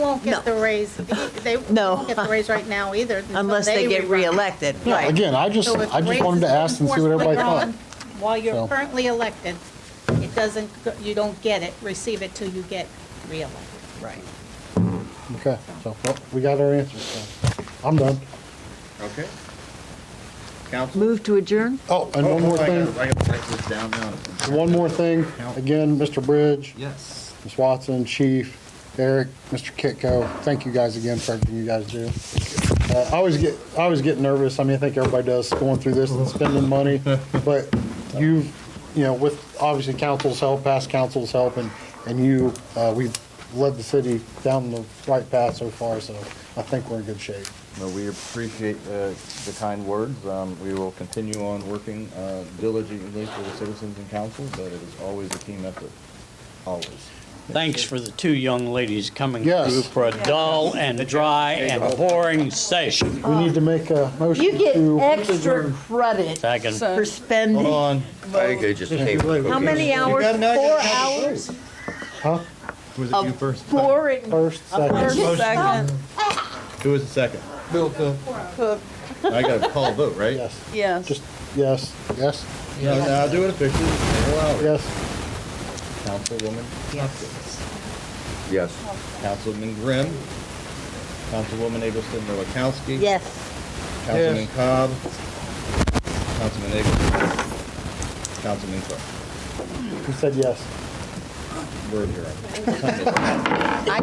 won't get the raise, they No. won't get the raise right now either. until unless they get rerun. reelected, Yeah, right? again, I just, So if I just raises wanted to ask and see what everybody enforced later thought. on, While you're So. currently elected, it doesn't, go- you don't get it, receive it till you get reelected. Right. Okay, so, well, we got our answers, so, I'm done. Okay. Council? Move to adjourn? Oh, and one more I gotta- thing, I gotta write this down now. one more thing, again, Mr. Bridge, Yes. Ms. Watson, Chief, Eric, Mr. Kitco, thank you guys again for everything you guys do. Uh, I always get, I always get nervous, I mean, I think everybody does, going through this and spending money, but you've, you know, with obviously council's help, past council's help, and, and you, uh, we've led the city down the right path so far, so I think we're in good shape. Well, we appreciate uh, the kind words. Um, We will continue on working uh, diligently for the citizens and council, but it is always a team effort, always. Thanks for the two young ladies coming Yes. through for a dull and dry and boring session. We need to make a motion to. You get extra credit Second. for spending, Hold how on. I could just say. many hours? got nugget? Four hours Huh? Was of boring. First, second. Second, Who was the second? Bill Cook. Cook. I gotta call a vote, right? Yes, yes. just, yes, yes, No, no, I'll do it officially. Allow it. yes, Councilwoman Hopkins. Yes. Councilman Grimm. Councilwoman Abelson Milakowski. Yes, Councilman Cobb. Councilman Abelson. Councilman Cook. you said yes. We're adjourned. I